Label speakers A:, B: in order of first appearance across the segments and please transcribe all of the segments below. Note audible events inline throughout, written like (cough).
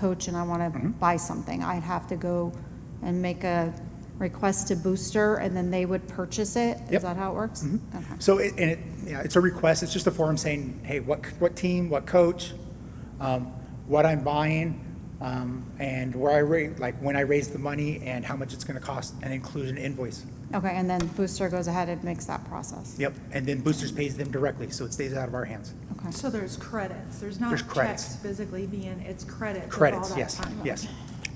A: coach and I want
B: Mm-hmm.
A: to buy something, I'd have to go and make a request to Booster, and then they would purchase it?
B: Yep. Mm-hmm.
A: Is that how it works? Okay.
B: So, it- and it, yeah, it's a request, it's just a form saying, hey, what, what team, what coach, um, what I'm buying, um, and where I rate, like, when I raise the money and how much it's gonna cost, and include an invoice.
A: Okay, and then Booster goes ahead and makes that process?
B: Yep, and then Boosters pays them directly, so it stays out of our hands.
A: Okay.
C: So there's credits, there's
B: There's
C: not
B: credits.
C: checks physically being, it's credits. of all
B: Credits,
C: that
B: yes,
C: time.
B: yes.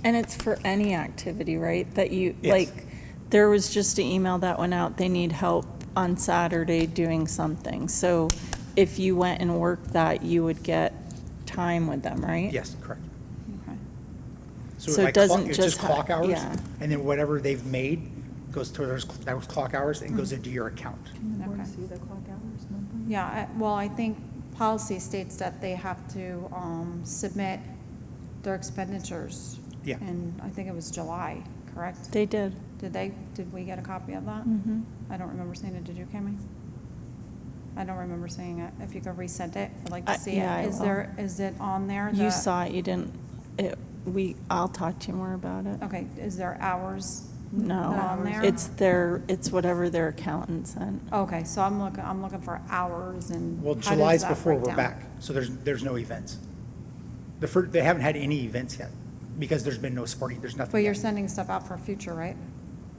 D: And it's for any activity, right? That you,
B: Yes.
D: like, there was just an email that went out, they need help on Saturday doing something. So if you went and worked that, you would get time with them, right?
B: Yes, correct.
D: Okay.
B: it's
D: So it
B: like clock-
D: doesn't
B: it's
D: just ha-
B: clock hours,
D: yeah.
B: and then whatever they've made goes to those, that was clock hours
D: Mm-hmm.
B: and goes into your account.
C: Can the board
A: Okay.
C: see the clock hours number?
A: Yeah, I- well, I think policy states that they have to um, submit their expenditures.
B: Yeah.
A: And I think it was July, correct?
D: They did.
A: Did they, did we get a copy of that?
D: Mm-hmm.
A: I don't remember seeing it, did you, Kami? I don't remember seeing it. If you could resend it, I'd like
D: I-
A: to see
D: yeah, I
A: it. Is
D: will.
A: there, is it on there? the-
D: You saw it, you didn't, it, we, I'll talk to you more about it.
A: Okay, is there hours?
D: No,
A: On there?
D: it's their, it's whatever their accountant sent.
A: Okay, so I'm looking, I'm looking for hours and.
B: Well,
A: how does
B: July's
A: that
B: before
A: break
B: we're
A: down?
B: back, so there's, there's no events. The first, they haven't had any events yet, because there's been no sporting, there's nothing.
A: But you're
B: yet.
A: sending stuff out for future, right?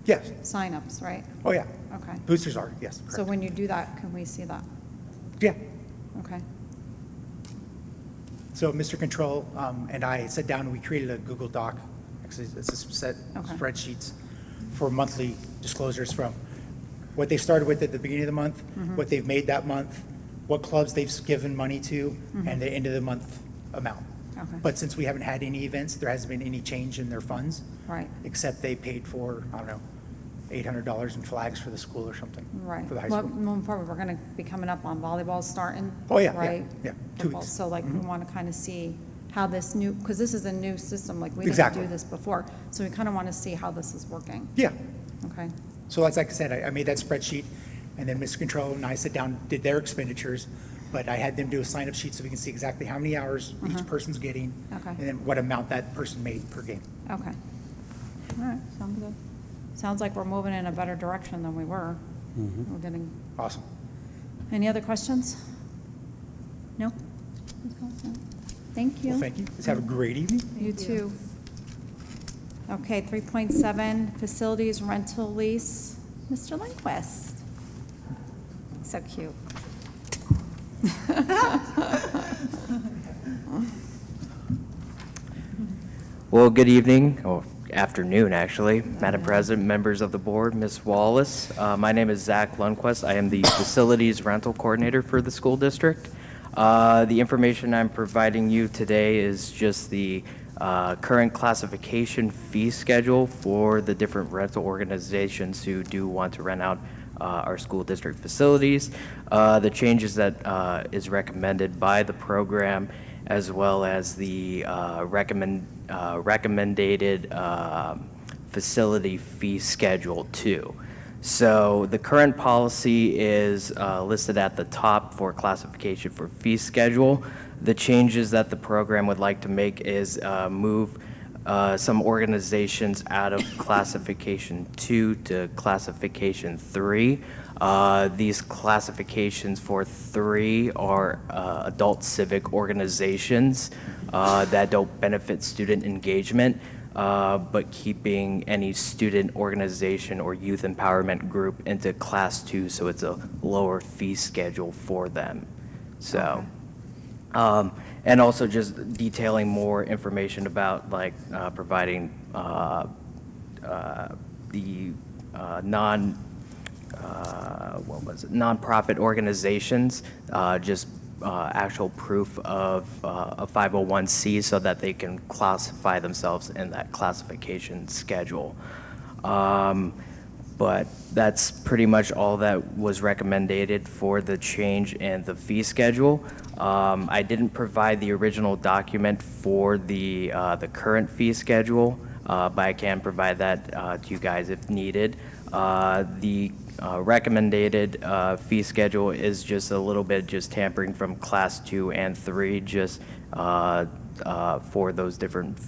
B: Yes,
A: Signups, right?
B: oh, yeah.
A: Okay.
B: Boosters are, yes,
A: So
B: correct.
A: when you do that, can we see that?
B: Yeah,
A: Okay.
B: so Mr. Control um, and I sat down, and we created a Google Doc, actually, it's a set
A: Okay.
B: spreadsheets for monthly disclosures from what they started with at the beginning of the month,
A: Mm-hmm.
B: what they've made that month, what clubs they've given money to, and the end of the month amount.
A: Mm-hmm. Okay.
B: But since we haven't had any events, there hasn't been any change in their funds.
A: Right.
B: Except they paid for, I don't know, eight hundred dollars in flags for the school or something.
A: Right.
B: For the high
A: Well,
B: school.
A: Moving forward, we're going to be coming up on volleyball starting.
B: Oh, yeah, yeah,
A: Right?
B: yeah, two
A: Football.
B: weeks. Mm-hmm.
A: So like, we want to kind of see how this new, because this is a new system, like, we didn't
B: Exactly.
A: do this before. So we kind of want to see how this is working.
B: Yeah,
A: Okay?
B: so that's like I said, I, I made that spreadsheet, and then Ms. Control and I sat down, did their expenditures, but I had them do a sign-up sheet so we can see exactly how many hours each person's getting.
A: Mm-hmm. Okay.
B: And then what amount that person made per game.
A: Okay. All right, sounds good. Sounds like we're moving in a better direction than we were.
B: Mm-hmm.
A: We're getting,
B: Awesome.
A: any other questions? No? Thank you.
B: Well, thank you. Let's have a great evening.
A: You too. Okay, 3.7, facilities rental lease. Mr. Lindquist. So cute. (laughs)
E: Well, good evening, or afternoon, actually, Madam President, members of the board, Ms. Wallace. Uh, My name is Zach Lundquist. I am the Facilities Rental Coordinator for the school district. Uh, The information I'm providing you today is just the uh, current classification fee schedule for the different rental organizations who do want to rent out uh, our school district facilities, uh, the changes that uh, is recommended by the program, as well as the uh, recommend, uh, recommended uh, facility fee schedule too. So the current policy is uh, listed at the top for classification for fee schedule. The changes that the program would like to make is uh, move uh, some organizations out of classification two to classification three. Uh, These classifications for three are uh, adult civic organizations uh, that don't benefit student engagement, uh, but keeping any student organization or youth empowerment group into class two, so it's a lower fee schedule for them. So, um, And also just detailing more information about like uh, providing uh, uh, the uh, non, uh, what was it, nonprofit organizations, uh, just uh, actual proof of uh, a 501c so that they can classify themselves in that classification schedule. Um, but that's pretty much all that was recommended for the change in the fee schedule. Um, I didn't provide the original document for the, uh, the current fee schedule, uh, but I can provide that, uh, to you guys if needed. Uh, the, uh, recommended, uh, fee schedule is just a little bit just tampering from class two and three, just, uh, uh, for those different